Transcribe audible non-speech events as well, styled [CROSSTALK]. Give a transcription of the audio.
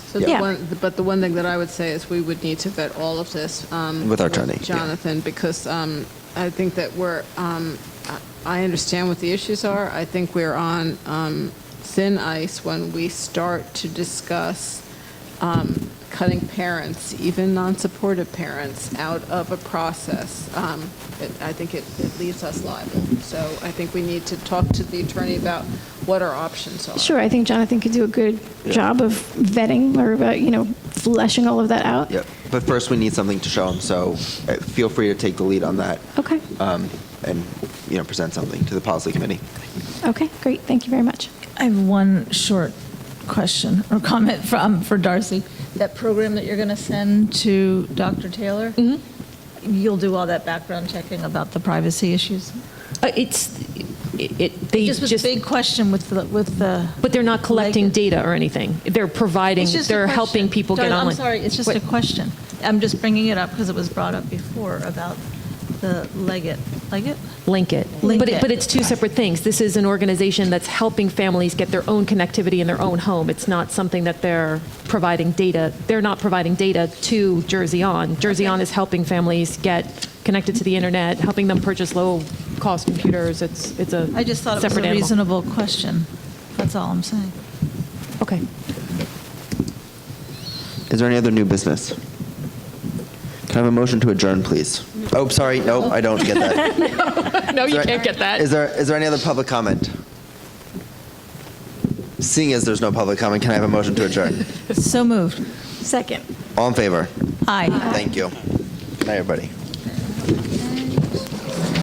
So the Yeah. one, but the one thing that I would say is we would need to vet all of this. um, With our attorney, yeah. Jonathan, because um, I think that we're, um, I I understand what the issues are. I think we're on um, thin ice when we start to discuss um, cutting parents, even non-supportive parents, out of a process. Um, it- I think it it leaves us liable. So I think we need to talk to the attorney about what our options are. Sure, I think Jonathan could do a good job of vetting or, uh, you know, fleshing all of that out. Yep. But first, we need something to show them. So uh, feel free to take the lead on that Okay, um, and you know present something to the policy committee. okay, great, thank you very much. I have one short question or comment from, for Darcy. That program that you're going to send to Dr. Taylor? Mm-hmm. You'll do all that background checking about the privacy issues? Uh, It's, it- it, they Just was a just, big question with the, with the. but they're not collecting Like- data or anything. They're providing, It's just a they're question. helping people get Darla, online. I'm sorry, it's just a Wait. question. I'm just bringing it up because it was brought up before about the Leggett, Leggett? Link it. Link But it. it, but it's two separate things. This is an organization that's helping families get their own connectivity in their own home. It's not something that they're providing data, they're not providing data to Jersey On. Jersey On is helping families get connected to the internet, helping them purchase low-cost computers. It's, it's a separate animal. I just thought it was a reasonable question. That's all I'm saying. Okay. Is there any other new business? Can I have a motion to adjourn, please? Oh, sorry. Nope, I don't get [LAUGHS] that. No, Is you there- can't get that. Is there is there any other public comment? Seeing as there's no public comment, can I have a motion to adjourn? So moved. Second. All in favor? Aye. Thank you. Good night, everybody.